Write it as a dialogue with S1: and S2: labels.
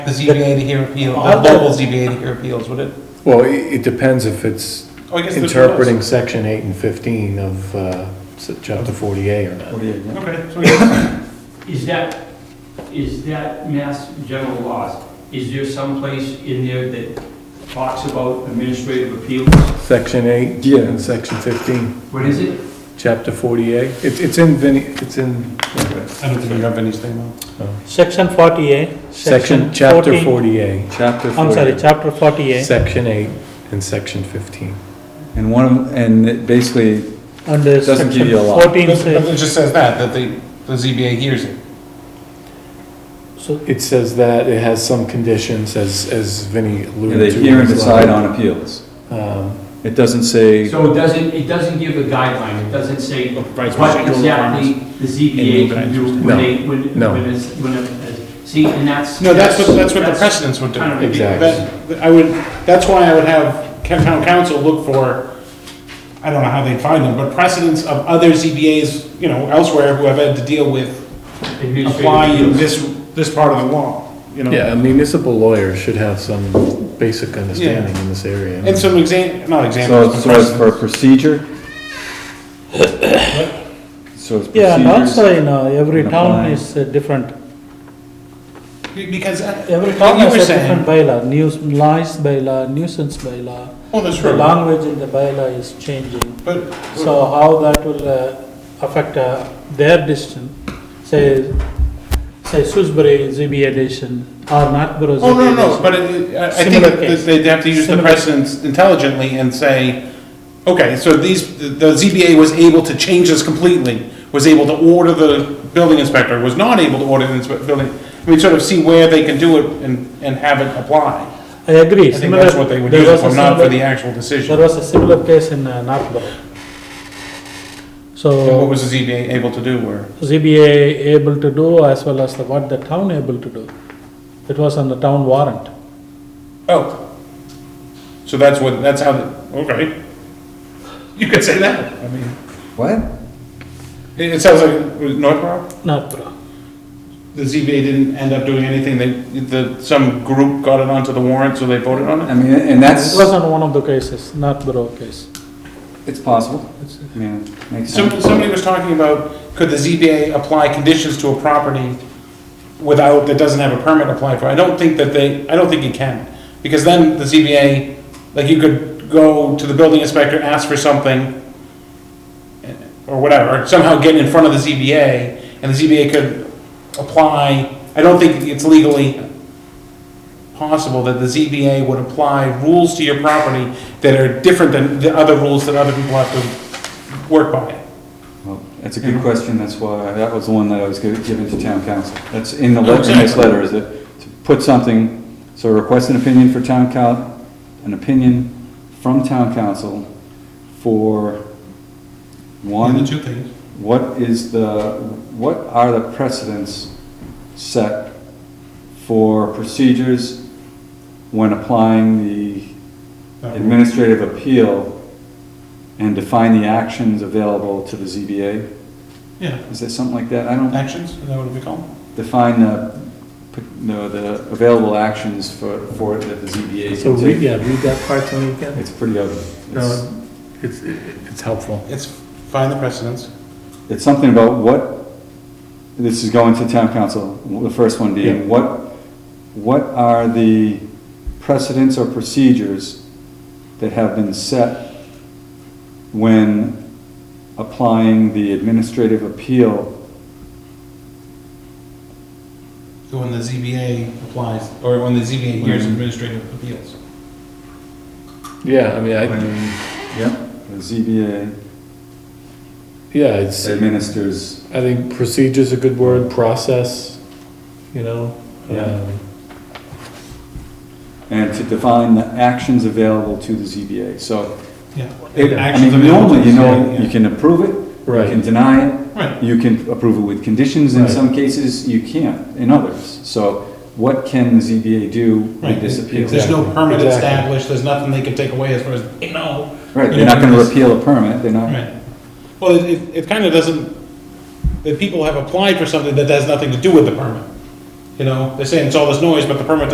S1: the ZBA to hear appeals, the
S2: I'll-
S1: local ZBA to hear appeals, would it?
S3: Well, i- it depends if it's
S1: Oh, I guess there's no-
S3: interpreting section eight and fifteen of uh, s- chapter 48 or not.
S1: Okay, so we guess
S2: Is that, is that mass general laws, is there some place in there that talks about administrative appeals?
S3: Section eight and section fifteen,
S2: What is it?
S3: chapter 48. It's it's in, Vinny- it's in
S1: I don't think you have anything, though.
S4: Section 40A.
S3: section, chapter
S4: 14
S3: 48,
S5: Chapter
S4: I'm sorry,
S5: 40.
S4: chapter 40A,
S3: section eight and section 15.
S5: And one, of- and it basically,
S4: under
S5: Doesn't give
S4: uh, section
S5: you a lot.
S4: 14
S1: But
S4: says,
S1: It just says that, that the, the ZBA hears it.
S4: so
S3: It says that, it has some conditions, as as Vinny
S5: they
S3: alluded to.
S5: hear and
S3: as
S5: decide
S3: well.
S5: on appeals.
S3: Um,
S5: It doesn't say,
S2: So it doesn't, it doesn't give a guideline, it doesn't say what
S6: Right, procedural
S2: exactly the ZBA can do
S3: No,
S2: when they, when,
S3: no.
S2: when it's, when it's, see, and that's.
S6: No, that's what, that's what the precedents would do.
S2: kind of
S3: Exactly.
S6: That- I would, that's why I would have ca- town council look for, I don't know how they'd find them, but precedents of other ZBAs, you know, elsewhere who have had to deal with
S2: administrative
S6: applying
S2: appeals.
S6: this, this part of the law, you know?
S3: Yeah, a municipal lawyer should have some basic understanding in this area.
S6: And some exam, not
S5: so
S6: examples, but
S5: so it's
S6: precedents.
S5: for procedure? So it's
S4: Yeah, and also,
S5: procedures.
S4: you know, every
S5: and
S4: town
S5: applying.
S4: is uh, different,
S6: Because, uh,
S4: every town
S6: Like you were
S4: has a
S6: saying.
S4: different bylaw, News noise bylaw, nuisance bylaw.
S6: oh, that's
S4: The
S6: true,
S4: language in the bylaw is changing,
S6: but,
S4: so how that will uh, affect uh, their decision, say, say Salisbury ZBA decision or Northborough ZBA
S6: oh, no, no,
S4: decision.
S6: but it- I I think
S4: Similar
S6: that
S4: case.
S6: they'd have to use the
S4: Similar.
S6: precedents intelligently and say, okay, so these, the- the ZBA was able to change this completely, was able to order the building inspector, was not able to order the inspe- building. I mean, sort of see where they can do it and, and have it apply.
S4: I agree.
S6: I think that's what they would use it for, not for the actual
S4: There
S6: decision.
S4: was a similar case in uh, Northborough.
S6: And what
S4: So
S6: was the ZBA able to do where?
S4: ZBA able to do as well as the- what the town able to do. It was on the town warrant.
S6: Oh. So that's what, that's how, the- okay. You could say that. I mean,
S5: What?
S6: it, it sounds like, was it Northborough?
S4: Northborough.
S6: The ZBA didn't end up doing anything, they, the, some group got it onto the warrant, so they voted on
S5: I
S6: it?
S5: mean, and that's,
S4: It was on one of the cases, Northborough case.
S5: it's possible. I mean, it makes
S6: Some,
S5: sense.
S6: somebody was talking about, could the ZBA apply conditions to a property without, that doesn't have a permit applied for? I don't think that they, I don't think you can, because then the ZBA, like, you could go to the building inspector, ask for something, or whatever, somehow get in front of the ZBA, and the ZBA could apply, I don't think it's legally possible that the ZBA would apply rules to your property that are different than the other rules that other people have to work by.
S5: Well, That's a good question, that's why, that was the one that I was gi- giving to town council. That's in the letter, in this letter, is it, to put something, so request an opinion for town coun, an opinion from town council for one.
S6: And the two things.
S5: What is the, what are the precedents set for procedures when applying the administrative appeal and define the actions available to the ZBA?
S6: Yeah,
S5: Is there something like that? I don't
S6: actions, is that what we call them?
S5: define the, no, the available actions for, for it that the ZBA
S3: So
S5: can
S3: read,
S5: take.
S3: yeah, read that part to me again.
S5: It's pretty ugly. It's-
S3: No, it's, it's helpful.
S6: It's find the precedents.
S5: It's something about what, this is going to town council, the first one
S3: Yeah.
S5: being, what, what are the precedents or procedures that have been set when applying the administrative appeal?
S6: So when the ZBA applies, or when the ZBA hears administrative appeals.
S3: Yeah, I mean, I,
S5: Yep. The ZBA
S3: yeah, it's, I
S5: administers,
S3: think procedure's a good word, process, you know?
S5: Yeah.
S3: um,
S5: and to define the actions available to the ZBA, so.
S6: Yeah.
S5: it- I
S6: Actions
S5: mean,
S6: available to
S5: normally, you
S6: the
S5: know,
S6: ZBA, yeah.
S5: you can approve it, you
S3: Right.
S5: can deny it,
S6: Right.
S5: You can approve it with conditions, in
S3: Right.
S5: some cases you can't, in others. So what can the ZBA do with this appeal?
S6: There's no
S3: Exactly.
S6: permit
S3: Exactly.
S6: established, there's nothing they can take away as far as, they know.
S5: Right,
S6: you
S5: they're not gonna
S6: know, this-
S5: repeal a permit, they're not,
S6: Right. Well, it, it, it kind of doesn't, the people have applied for something that has nothing to do with the permit. You know, they're saying it's all this noise, but the permit